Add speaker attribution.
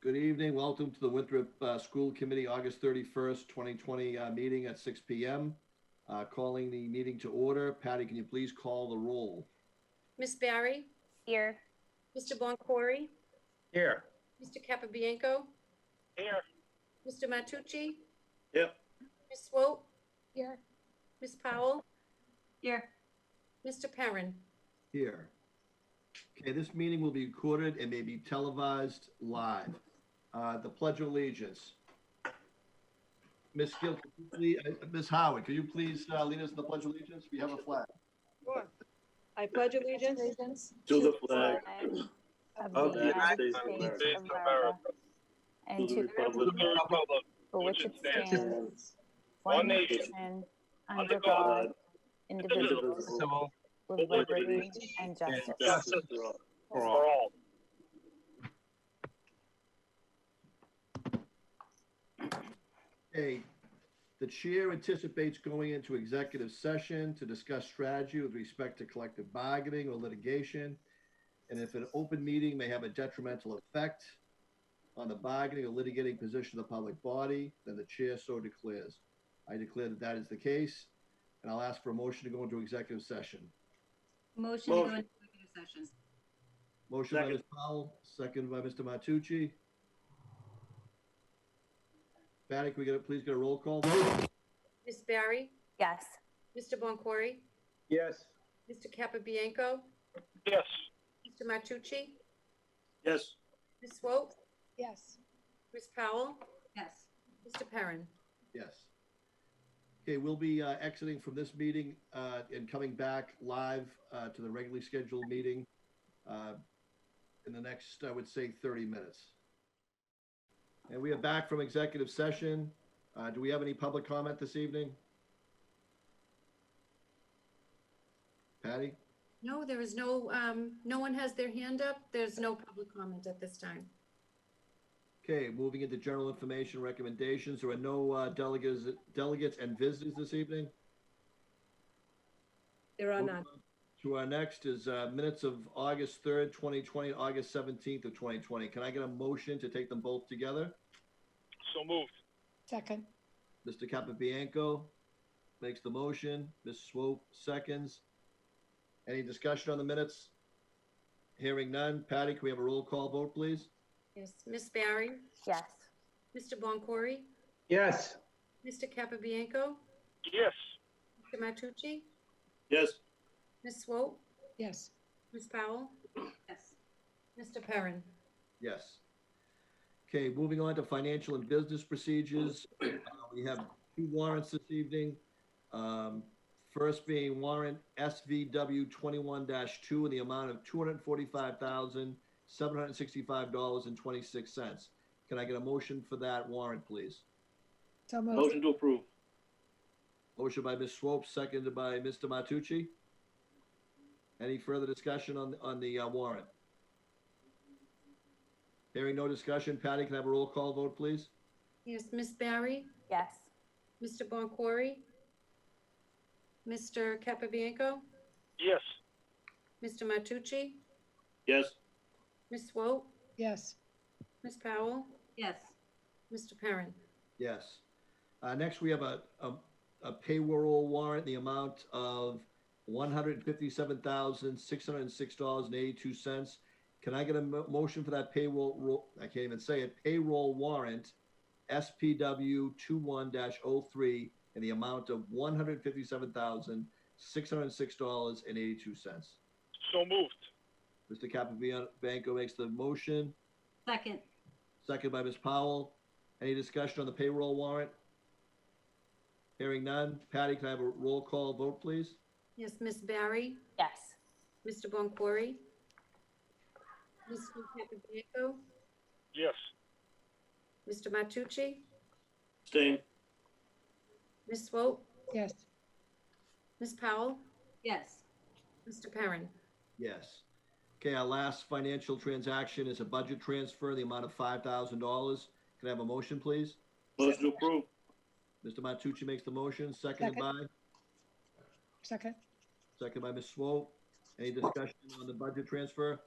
Speaker 1: Good evening. Welcome to the Winthrop uh, School Committee, August 31st, 2020 uh, meeting at 6 PM. Uh, Calling the meeting to order. Patty, can you please call the roll?
Speaker 2: Miss Barry,
Speaker 3: Here.
Speaker 2: Mr. Boncory,
Speaker 4: Here.
Speaker 2: Mr. Capabianco,
Speaker 4: Here.
Speaker 2: Mr. Matucci.
Speaker 4: Yep.
Speaker 2: Ms. Swope,
Speaker 3: Here.
Speaker 2: Ms. Powell,
Speaker 3: Here.
Speaker 2: Mr. Perrin.
Speaker 1: Here. Okay, this meeting will be recorded and may be televised live. Uh, The Pledge of Allegiance. Ms. Gill, could you please- uh, Ms. Howard, could you please uh, lead us in the Pledge of Allegiance? We have a flag.
Speaker 5: Sure. I pledge allegiance
Speaker 4: To the flag
Speaker 3: Of the United States
Speaker 6: States
Speaker 3: of
Speaker 6: of
Speaker 3: America.
Speaker 4: to
Speaker 3: And to the
Speaker 4: the republic
Speaker 3: republic
Speaker 6: Republic,
Speaker 3: for which it stands, one
Speaker 6: one nation,
Speaker 3: nation,
Speaker 6: under
Speaker 3: under God,
Speaker 4: God,
Speaker 3: indivisible,
Speaker 4: indivisible,
Speaker 6: civil,
Speaker 3: with
Speaker 4: with
Speaker 3: liberty
Speaker 4: liberty
Speaker 3: and
Speaker 4: and
Speaker 3: justice.
Speaker 4: justice for all.
Speaker 6: for all.
Speaker 1: A, the chair anticipates going into executive session to discuss strategy with respect to collective bargaining or litigation. And if an open meeting may have a detrimental effect on the bargaining or litigating position of the public body, then the chair so declares. I declare that that is the case, and I'll ask for a motion to go into executive session.
Speaker 7: Motion to go
Speaker 4: Motion.
Speaker 7: into executive session.
Speaker 1: Motion by
Speaker 4: Second.
Speaker 1: Ms. Powell, second by Mr. Matucci. Patty, can we get a, please get a roll call?
Speaker 2: Miss Barry,
Speaker 3: Yes.
Speaker 2: Mr. Boncory,
Speaker 4: Yes.
Speaker 2: Mr. Capabianco,
Speaker 6: Yes,
Speaker 2: Mr. Matucci,
Speaker 4: Yes.
Speaker 2: Ms. Swope,
Speaker 5: Yes.
Speaker 2: Ms. Powell,
Speaker 7: Yes.
Speaker 2: Mr. Perrin.
Speaker 1: Yes. Okay, we'll be uh, exiting from this meeting uh, and coming back live uh, to the regularly scheduled meeting uh, in the next, I would say, 30 minutes. And we are back from executive session. Uh, Do we have any public comment this evening? Patty?
Speaker 2: No, there is no, um, no one has their hand up. There's no public comment at this time.
Speaker 1: Okay, moving into general information recommendations. There are no uh, delegates, delegates and visitors this evening?
Speaker 2: There are
Speaker 1: Moving
Speaker 2: none.
Speaker 1: on To our next is uh, minutes of August 3rd, 2020, August 17th of 2020. Can I get a motion to take them both together?
Speaker 6: so moved.
Speaker 5: Second.
Speaker 1: Mr. Capabianco makes the motion, Ms. Swope seconds. Any discussion on the minutes? Hearing none. Patty, can we have a roll call vote, please?
Speaker 2: Yes. Miss Barry,
Speaker 3: Yes.
Speaker 2: Mr. Boncory,
Speaker 4: Yes.
Speaker 2: Mr. Capabianco,
Speaker 6: Yes,
Speaker 2: Mr. Matucci,
Speaker 4: Yes.
Speaker 2: Ms. Swope,
Speaker 5: Yes.
Speaker 2: Ms. Powell,
Speaker 7: Yes.
Speaker 2: Mr. Perrin.
Speaker 1: Yes. Okay, moving on to financial and business procedures. Uh, We have two warrants this evening. Um, First being warrant SVW twenty-one two in the amount of two hundred and forty-five thousand, seven hundred and sixty-five dollars and twenty-six cents. Can I get a motion for that warrant, please?
Speaker 5: So moved.
Speaker 4: Motion to approve.
Speaker 1: Motion by Ms. Swope, seconded by Mr. Matucci. Any further discussion on, on the uh, warrant? Hearing no discussion. Patty, can I have a roll call vote, please?
Speaker 2: Yes, Miss Barry,
Speaker 3: Yes.
Speaker 2: Mr. Boncory, Mr. Capabianco,
Speaker 6: yes,
Speaker 2: Mr. Matucci,
Speaker 4: Yes.
Speaker 2: Ms. Swope,
Speaker 5: Yes.
Speaker 2: Ms. Powell,
Speaker 7: Yes.
Speaker 2: Mr. Perrin.
Speaker 1: Yes. Uh, next, we have a, a, a payroll warrant, in the amount of one hundred fifty-seven thousand, six hundred and six dollars and eighty-two cents. Can I get a mo- motion for that payroll, ro- I can't even say it, payroll warrant, SPW two-one dash oh-three, in the amount of one hundred fifty-seven thousand, six hundred and six dollars and eighty-two cents.
Speaker 6: so moved.
Speaker 1: Mr. Capabianco makes the motion,
Speaker 7: Second.
Speaker 1: Second by Ms. Powell. Any discussion on the payroll warrant? Hearing none. Patty, can I have a roll call vote, please?
Speaker 2: Yes, Miss Barry,
Speaker 3: Yes.
Speaker 2: Mr. Boncory, Mr. Capabianco,
Speaker 6: Yes,
Speaker 2: Mr. Matucci,
Speaker 4: Same.
Speaker 2: Ms. Swope,
Speaker 5: Yes.
Speaker 2: Ms. Powell,
Speaker 7: Yes.
Speaker 2: Mr. Perrin.
Speaker 1: Yes. Okay, our last financial transaction is a budget transfer, in the amount of five thousand dollars. Can I have a motion, please?
Speaker 4: Motion to approve.
Speaker 1: Mr. Matucci makes the motion, seconded by,
Speaker 5: Second.
Speaker 1: seconded by Ms. Swope. Any discussion on the budget transfer?